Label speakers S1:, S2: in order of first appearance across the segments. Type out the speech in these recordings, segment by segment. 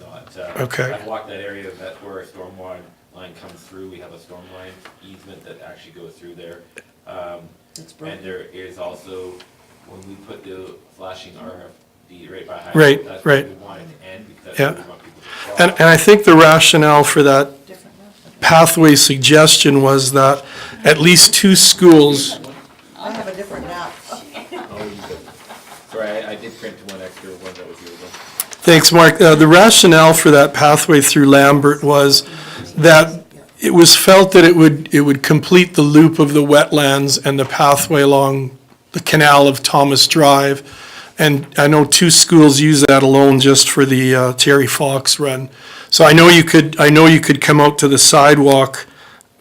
S1: but uh,
S2: Okay.
S1: I've walked that area, that's where a stormwater line comes through, we have a storm line easement that actually goes through there. Um,
S3: It's
S1: And
S3: broken.
S1: there is also, when we put the flashing RFD right by high
S2: Right,
S1: school, that's where
S2: right.
S1: we want it to end, because that's
S2: Yeah.
S1: where we want people to cross.
S2: And, and I think the rationale for that pathway suggestion was that at least two schools,
S3: I have a different map.
S1: Oh, Sorry, I- I did print one extra one that was yours.
S2: thanks, Mark, Uh, the rationale for that pathway through Lambert was that it was felt that it would, it would complete the loop of the wetlands and the pathway along the canal of Thomas Drive. And I know two schools use that alone just for the uh, Terry Fox run. So I know you could, I know you could come out to the sidewalk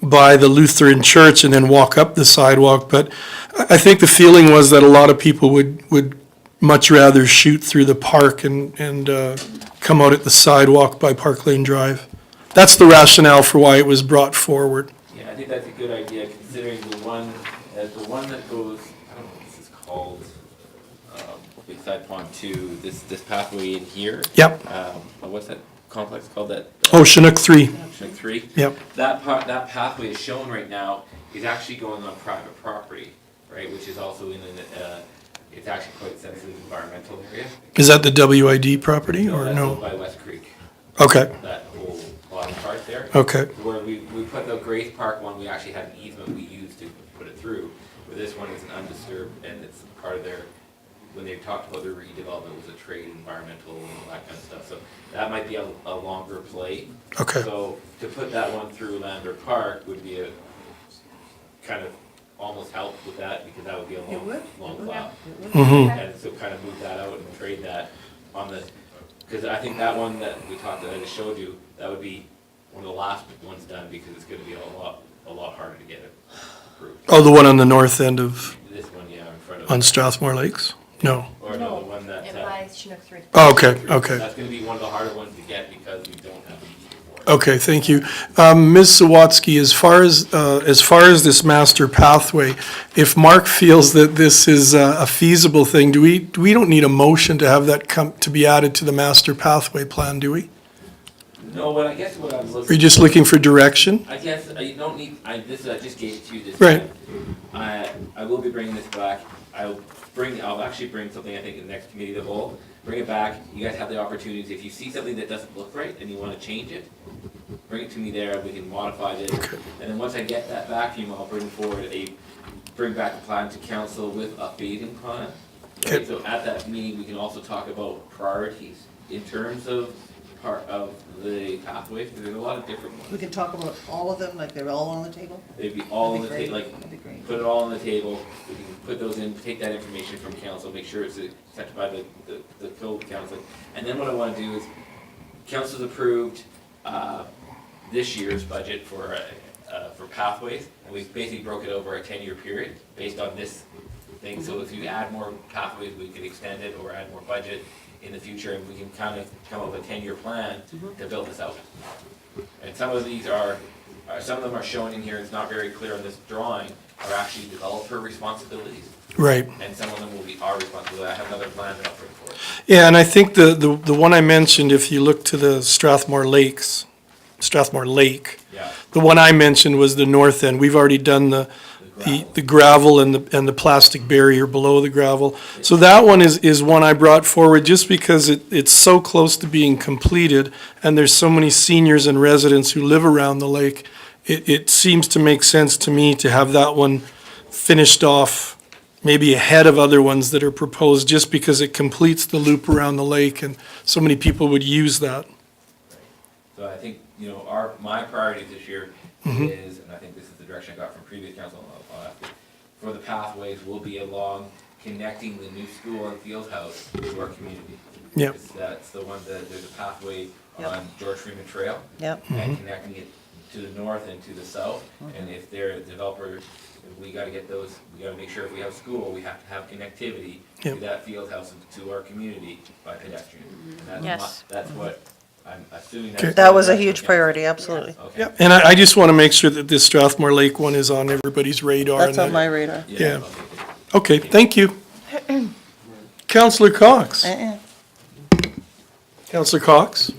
S2: by the Lutheran church and then walk up the sidewalk, but I, I think the feeling was that a lot of people would, would much rather shoot through the park and, and, uh, come out at the sidewalk by Park Lane Drive. That's the rationale for why it was brought forward.
S1: Yeah, I think that's a good idea, considering the one, uh, the one that goes, I don't know what this is called, um, beside Pond Two, this, this pathway in here.
S2: Yep.
S1: Um, uh, what's that complex called, that, uh,
S2: Oh, Chinook three,
S1: Section Three?
S2: yep,
S1: That part, that pathway is shown right now is actually going on private property, right, which is also in an, uh, it's actually quite sensitive environmental area.
S2: is that the WID property or
S1: That's
S2: no?
S1: owned By West Creek,
S2: Okay,
S1: that whole bottom part there.
S2: okay,
S1: Where we, we put the Grace Park one, we actually had an easement we used to put it through. Where this one is an undisturbed, and it's part of their, when they talked about their redevelopment, it was a trade, environmental, and all that kind of stuff. So that might be a, a longer play.
S2: okay.
S1: So to put that one through Lander Park would be a, kind of almost help with that, because that would be a
S3: It
S1: long,
S3: would, it
S1: long
S3: would.
S1: plow.
S2: Mm-hmm,
S1: And so kind of move that out and trade that on the, because I think that one that we talked, that I just showed you, that would be one of the last ones done because it's gonna be a lot, a lot harder to get it approved.
S2: oh, the one on the north end of,
S1: This one, yeah, in front of.
S2: on Strathmore Lakes? No,
S1: Or no, the one that.
S4: It
S1: uh,
S4: buys Chinook three.
S2: oh, okay, okay.
S1: That's gonna be one of the harder ones to get because we don't have the easement for it.
S2: Okay, thank you. Um, Ms. Sawatsky, as far as, uh, as far as this master pathway, if Mark feels that this is uh, a feasible thing, do we, we don't need a motion to have that come, to be added to the master pathway plan, do we?
S1: No, but I guess what I'm
S2: Are you
S1: looking,
S2: just looking for direction?
S1: I guess I don't need, I, this, I just gave it to you this.
S2: Right.
S1: time. I, I will be bringing this back. I'll bring, I'll actually bring something, I think, in the next committee of the whole. Bring it back. You guys have the opportunities. If you see something that doesn't look right and you wanna change it, bring it to me there. We can modify it.
S2: Okay.
S1: And then once I get that back from you, I'll bring forward a, bring back a plan to council with updating plan.
S2: Okay.
S1: So at that meeting, we can also talk about priorities in terms of part of the pathways, 'cause there's a lot of different ones.
S3: We could talk about all of them, like they're all on the table?
S1: It'd be all on the
S3: That'd
S1: table,
S3: be
S1: like,
S3: great. That'd be great.
S1: put it all on the table, we can put those in, take that information from council, make sure it's accepted by the, the, the code council. And then what I wanna do is, council's approved, uh, this year's budget for, uh, uh, for pathways, and we've basically broke it over a ten-year period based on this thing, so if
S3: Mm-hmm.
S1: you add more pathways, we could extend it or add more budget in the future, and we can kind of come up with a ten-year plan
S3: Mm-hmm.
S1: to build this out. And some of these are, are- Uh, some of them are shown in here, it's not very clear on this drawing, are actually developer responsibilities,
S2: Right.
S1: and some of them will be our responsibility. I have another plan that I'll bring forward.
S2: Yeah, and I think the, the, the one I mentioned, if you look to the Strathmore Lakes, Strathmore Lake,
S1: Yeah.
S2: the one I mentioned was the north end. We've already done the, the, the gravel and the, and the plastic barrier below the gravel. So that one is, is one I brought forward just because it, it's so close to being completed and there's so many seniors and residents who live around the lake. It, it seems to make sense to me to have that one finished off maybe ahead of other ones that are proposed just because it completes the loop around the lake and so many people would use that.
S1: So I think, you know, our, my priority this year is, and I think this is the direction I got from previous council, I'll- I'll ask it, for the pathways will be along connecting the new school and field house to our community.
S2: Yep.
S1: It's- That's the one that, there's a pathway
S3: Yep.
S1: on George Freeman Trail.
S3: Yep.
S2: Mm-hmm.
S1: and connecting it to the north and to the south. And if they're a developer, we gotta get those, we gotta make sure if we have school, we have to have connectivity to
S2: Yep.
S1: that field house and to our community by pedestrian. And that's my-
S4: Yes.
S1: That's what, I'm assuming
S2: Okay.
S1: that's.
S3: That was a huge priority, absolutely.
S1: Okay.
S2: Yep, and I, I just want to make sure that this Strathmore Lake one is on everybody's radar.
S3: That's
S2: and
S3: on
S2: that-
S3: my radar.
S2: Yeah.
S1: okay, good.
S2: Okay, thank you. Counselor Cox?
S3: Uh-uh.
S2: Counselor Cox?